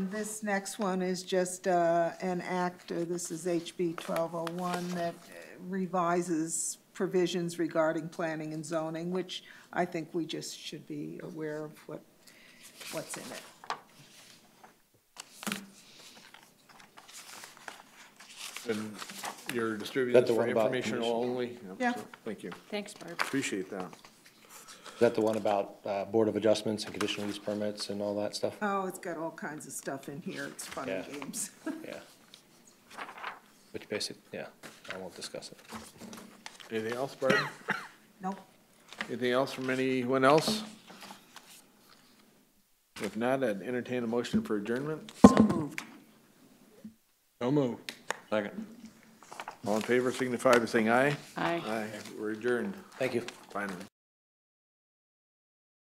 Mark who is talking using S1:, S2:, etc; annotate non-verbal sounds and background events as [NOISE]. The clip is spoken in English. S1: This next one is just uh, an act, uh, this is HB 1201, that revises provisions regarding planning and zoning, which I think we just should be aware of what, what's in it.
S2: And you're distributing
S3: That the
S2: this for
S3: one about
S2: informational only?
S1: Yeah.
S2: so, Thank you.
S4: Thanks, Barb.
S2: Appreciate that.
S3: Is that the one about uh, Board of Adjustments and conditional use permits and all that stuff?
S1: Oh, it's got all kinds of stuff in here, it's fun and
S3: Yeah.
S1: games. [LAUGHS]
S3: Yeah. Which basically, yeah, I won't discuss it.
S2: Anything else, Barb?
S1: Nope,
S2: Anything else from anyone else? If not, I'd entertain a motion for adjournment.
S4: So moved.
S2: No move. Second. All in favor signify by saying aye.
S4: Aye.
S2: Aye. We're adjourned,
S3: Thank you.
S2: finally.